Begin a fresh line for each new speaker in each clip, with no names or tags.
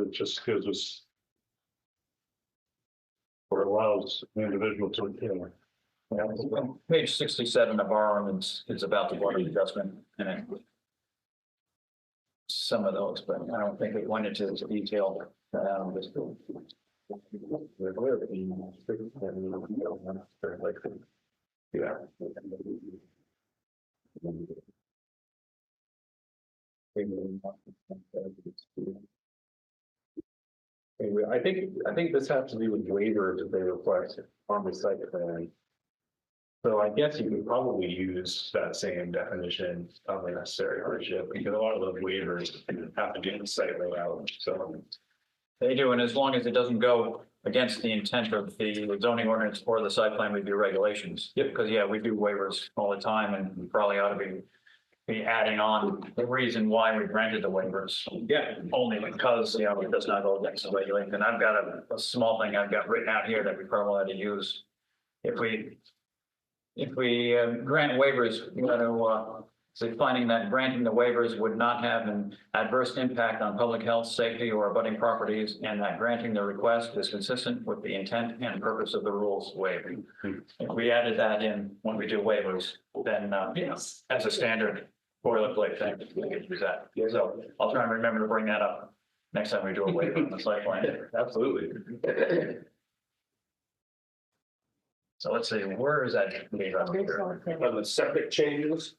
it just gives us. Or allows an individual to, you know.
Page sixty-seven of our ordinance is about the water adjustment and it. Some of those, but I don't think we went into this detail. um, this-
Yeah.
Anyway, I think, I think this has to do with waivers that they request on the site plan. So I guess you could probably use that same definition of a necessary hardship, because a lot of those waivers have to do with site layout, so.
They do, and as long as it doesn't go against the intent of the zoning ordinance or the site plan review regulations. Yep. Because, yeah, we do waivers all the time and we probably ought to be, be adding on the reason why we granted the waivers.
Yeah.
Only because, you know, it does not go against the regulation, and I've got a, a small thing I've got written out here that we probably ought to use. If we, if we uh, grant waivers, we ought to, uh, so finding that granting the waivers would not have an adverse impact on public health, safety, or abutting properties, and that granting the request is consistent with the intent and purpose of the rules waiving. If we added that in when we do waivers, then, uh, you know, as a standard boilerplate thing, we could do that. So I'll try and remember to bring that up next time we do a waiver on the site plan.
Absolutely.
So let's see, where is that? waiver on here?
On the septic changes,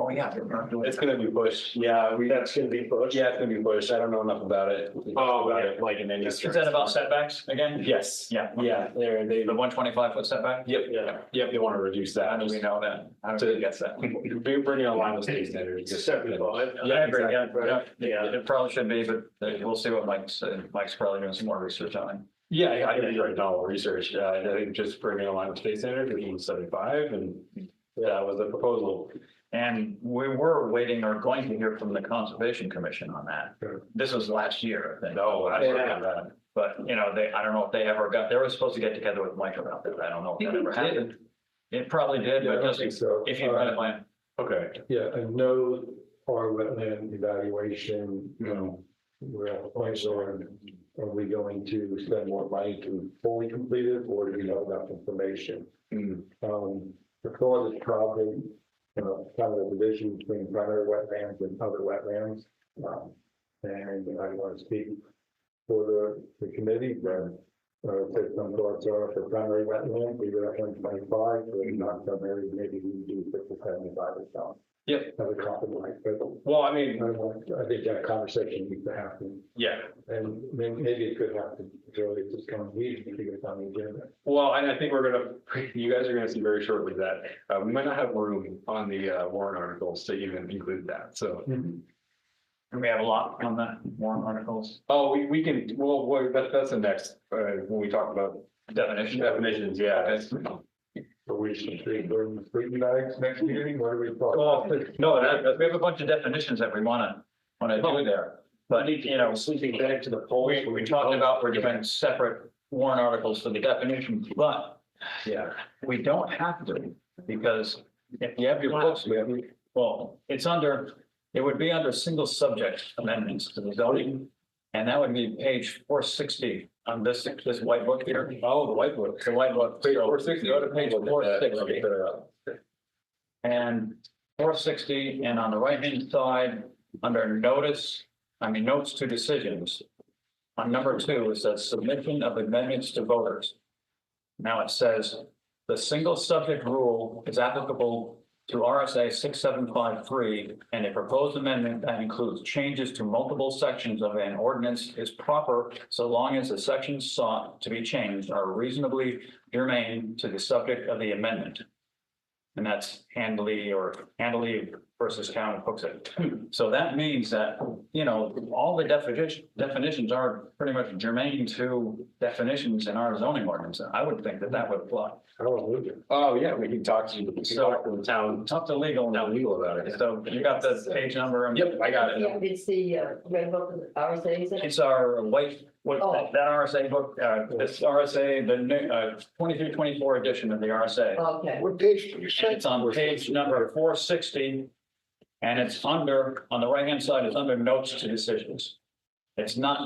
Oh, yeah. we're not doing
it's
that.
gonna be pushed, yeah, we,
That's gonna be pushed.
yeah, it's gonna be pushed, I don't know enough about it.
Oh, got it.
Like in any.
Is that about setbacks again?
Yes,
Yeah.
yeah, there, they,
The one twenty-five foot setback?
yep, yeah, yep, they wanna reduce
How
that,
do we
just
know that? How do we guess that?
bring bring it online with state standards.
It's seventy-five.
Yeah, I agree,
exactly.
yeah, yeah.
Yeah.
It probably should be, but uh, we'll see what Mike's, uh, Mike's probably doing some more research on it.
Yeah, I- I did write all research, uh, I think just bringing along with state standards, which was seventy-five, and that was the proposal.
And we were waiting or going to hear from the Conservation Commission on that.
Sure.
This was last year, Oh, I think.
No, I forgot that.
But, you know, they, I don't know if they ever got, they were supposed to get together with Mike about that. I don't know if that ever happened. It probably did,
Yeah, I
but
don't
just
think so. Uh,
if you've got a plan,
Okay,
Yeah, and no our wetland evaluation, you know, we're at a point where are we going to spend more money to fully complete it or do we have enough information?
Hmm.
Um, the thought is probably, you know, kind of the division between primary wetlands and other wetlands. Um, and I want to speak for the, the committee, but uh, if there's some thoughts are for primary wetland, we would have one twenty-five, but not primary, maybe we do fifty seventy-five or so.
Yep.
As a compromise, but
well, I
I
mean,
don't know, I think that conversation needs to happen,
yeah,
and may- maybe it could happen, really, just come here, if you get on the agenda.
Well, and I think we're gonna, you guys are gonna see very shortly that, uh, we might not have room on the, uh, warrant articles to even include that, so.
and we have a lot on the warrant articles
Oh, we, we can, well, well, that, that's the next, uh, when we talk about
definition.
definitions, yeah. that's-
So we should treat burden free bags next meeting, what do we
Well,
thought?
no, that, we have a bunch of definitions that we wanna, wanna do there, but you know.
Sleeping back to the polls.
We, we talked about we're doing separate warrant articles for the definition, but
Yeah.
we don't have to, because if you have your books, we have, well, it's under, it would be under single subject amendments to the zoning. And that would be page four sixty on this, this white book here.
Oh, the white book.
The white book.
Page four sixty.
Go to page four sixty.
Yeah,
And four sixty, and on the right-hand side, under notice, I mean, notes to decisions. On number two is that submission of amendments to voters. Now it says, the single subject rule is applicable to RSA six seven five three. And a proposed amendment that includes changes to multiple sections of an ordinance is proper so long as the sections sought to be changed are reasonably germane to the subject of the amendment. And that's handily or handily versus town of Hooksett. So that means that, you know, all the definition, definitions are pretty much germane to definitions in our zoning ordinance. I would think that that would apply.
Hallelujah.
oh, yeah, we can talk to, we can talk to the town,
Talk to legal now.
town legal about it.
So you got the page number and.
Yep, I got it.
Yeah, it's the uh, red book of RSA's.
It's our white, what,
Oh.
that RSA book, uh, this RSA, the new, uh, twenty-three, twenty-four edition of the RSA.
Oh, Okay,
What page did you
And it's on page number four sixty. And it's under, on the right-hand side, it's under notes to decisions. It's not